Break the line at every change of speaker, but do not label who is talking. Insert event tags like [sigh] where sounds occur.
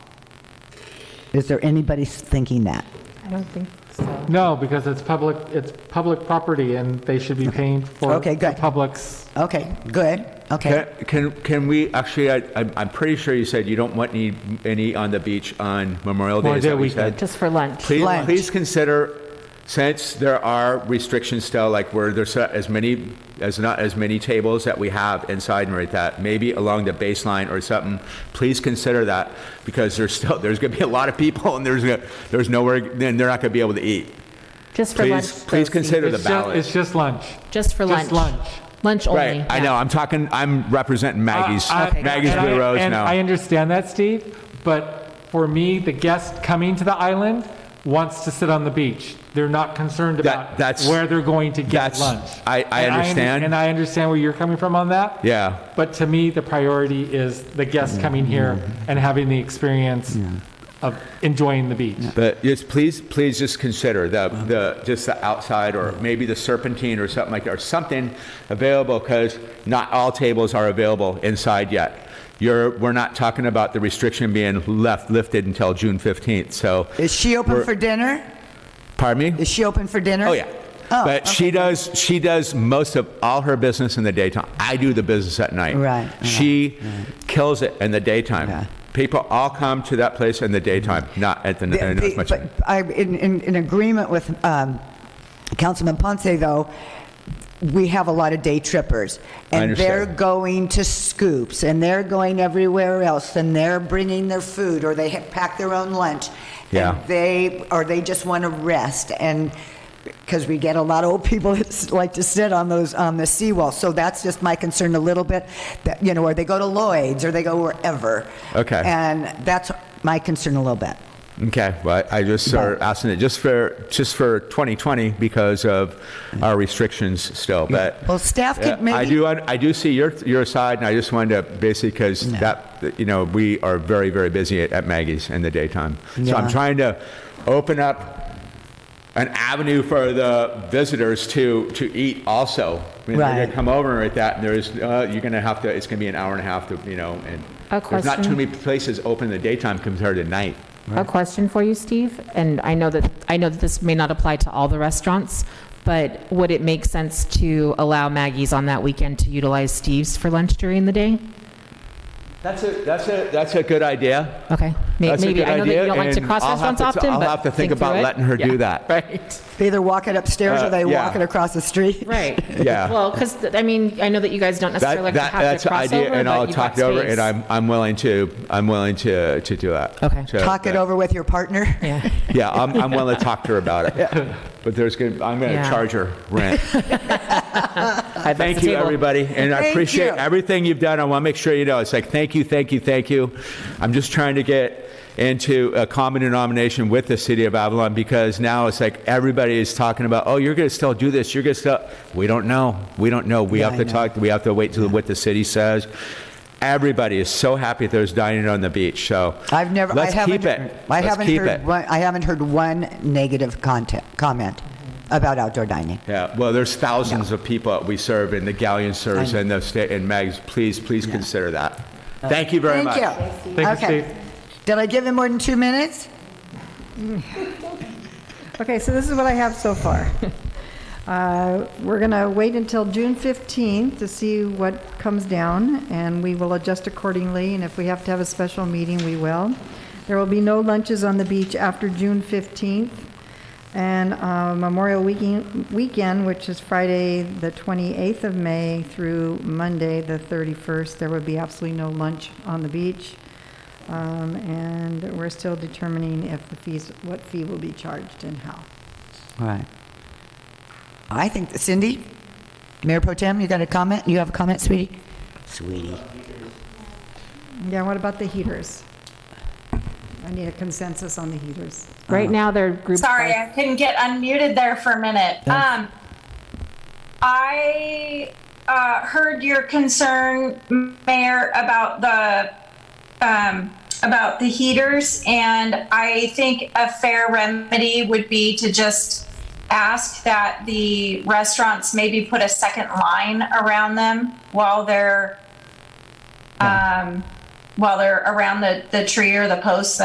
Is there anybody thinking that?
I don't think so.
No, because it's public, it's public property, and they should be paying for
Okay,
the
good.
public's
Okay, good, okay.
Can, can, can we, actually, I, I'm, I'm pretty sure you said you don't want any, any on the beach on Memorial Day, is that
Memorial Day
what you said?
Just for lunch.
Please,
Lunch.
please consider, since there are restrictions still, like where there's not as many, as not as many tables that we have inside and right that, maybe along the baseline or something, please consider that, because there's still, there's gonna be a lot of people and there's, gonna- there's nowhere, then they're not gonna be able to eat.
Just for lunch.
Please, please
Rosie.
consider the
It's ju-
ballot.
It's just lunch.
Just for lunch.
Just lunch.
Lunch only.
Right, I
yeah.
know, I'm talking, I'm representing Maggie's,
I- Uh, I-
Maggie's
and I-
Blue Rose
And
now.
I understand that, Steve, but for me, the guest coming to the island wants to sit on the beach. They're not concerned
That-
about
that's-
where they're going to get
that's-
lunch.
I- I
And under-
understand.
And I understand where you're coming from on that.
Yeah.
But to me, the priority is the guest coming here
Mm-hmm.
and having the experience of enjoying the beach.
But just please, please just consider the, the, just the outside or maybe the serpentine or something like that, or something available because not all tables are available inside yet. You're, we're not talking about the restriction being left, lifted until June 15th, so,
Is she open
We're-
for dinner?
pardon me?
Is she open for dinner?
Oh, yeah.
Oh,
But she
okay.
does, she does most of all her business in the daytime. I do the business at night.
Right,
She kills it in the
Yeah.
daytime. People all come to that place in the daytime, not at the,
The-
not
the-
as much.
but I- In in- in agreement with um, Councilman Ponce, though, we have a lot of day trippers.
I
And they're
understand.
going to Scoops, and they're going everywhere else, and they're bringing their food, or they ha- pack their own lunch.
Yeah.
And they, or they just want to rest, and, because we get a lot of old people [laughs] that s- like to sit on those, on the seawall. So that's just my concern a little bit, that, you know, or they go to Lloyd's, or they go wherever.
Okay.
And that's my concern a little bit.
Okay, well, I just started
But-
asking it just for, just for 2020 because of our restrictions still, but.
Well, staff
Yeah,
could maybe.
I do, I do see your, your side, and I just wanted to, basically, because that, you know, we are very, very busy at- at Maggie's in the daytime. So
Yeah.
I'm trying to open up an avenue for the visitors to, to eat also. I mean, They're
Right.
gonna come over at that, and there's, uh, you're gonna have to, it's gonna be an hour and a half to, you know, and.
A
There's not too
question?
many places open in the daytime compared to night.
A question for you, Steve, and I know that, I know that this may not apply to all the restaurants, but would it make sense to allow Maggie's on that weekend to utilize Steve's for lunch during the day?
That's a, that's a, that's a good idea.
Okay, May-
That's a
maybe,
good
I know that you
idea,
don't like to
and
cross
I'll have
restaurants
to-
often,
I'll
but
have to think
through
about
it.
letting her do
Yeah,
that.
Right. [laughs]
They either walk it upstairs or
Uh,
they
yeah.
walk it across the street.
Right.
Yeah.
Well, because, I mean, I know that you guys don't necessarily like
That,
to
that,
have
that's
the
an idea,
crossover,
and I'll
but you've
talk
got
it over,
space.
and I'm, I'm willing to, I'm willing to, to do that.
Okay.
So,
Talk it
but-
over with your partner.
Yeah.
Yeah, I'm, I'm willing to talk to her about it. But there's gonna, I'm gonna
Yeah.
charge her rent.
[laughs]
I'd like
Thank
the
you,
table.
everybody, and I
Thank
appreciate
you.
everything you've done. I want to make sure you know, it's like, thank you, thank you, thank you. I'm just trying to get into a common denomination with the city of Avalon, because now it's like, everybody is talking about, oh, you're gonna still do this, you're gonna still, we don't know, we don't know, we
Yeah,
have
I
to
know.
talk, we have to wait till what the city says. Everybody is so happy there's dining on the beach, so.
I've never.
Let's
I haven't,
keep it.
I
Let's
haven't
keep
heard.
it.
One, I haven't heard one negative content comment about outdoor dining.
Yeah, well, there's thousands of people that we serve, and the galleon serves,
I know. Uh,
and the, sta- and Mags, please, please consider that. Thank you very much.
Thank you.
Thank you,
okay.
Steve.
Did I give him more than two minutes?
Okay, so this is what I have so far. Uh, We're going to wait until June 15th to see what comes down, and we will adjust accordingly, and if we have to have a special meeting, we will. There will be no lunches on the beach after June 15th, and uh, Memorial Weekend, weekend, which is Friday, the 28th of May through Monday, the 31st, there would be absolutely no lunch on the beach. Um, And we're still determining if the fees, what fee will be charged and how.
All right. I think Cindy, Mayor Pro Tem, you got a comment? You have a comment, sweetie? Sweetie.
Yeah, what about the heaters? I need a consensus on the heaters.
Right now, they're grouped. by-
Sorry, I couldn't get unmuted there for a minute. Um, I uh, heard your concern, Mayor, about the um, about the heaters, and I think a fair remedy would be to just ask that the restaurants maybe put a second line around them while they're um, while they're around the the tree or the posts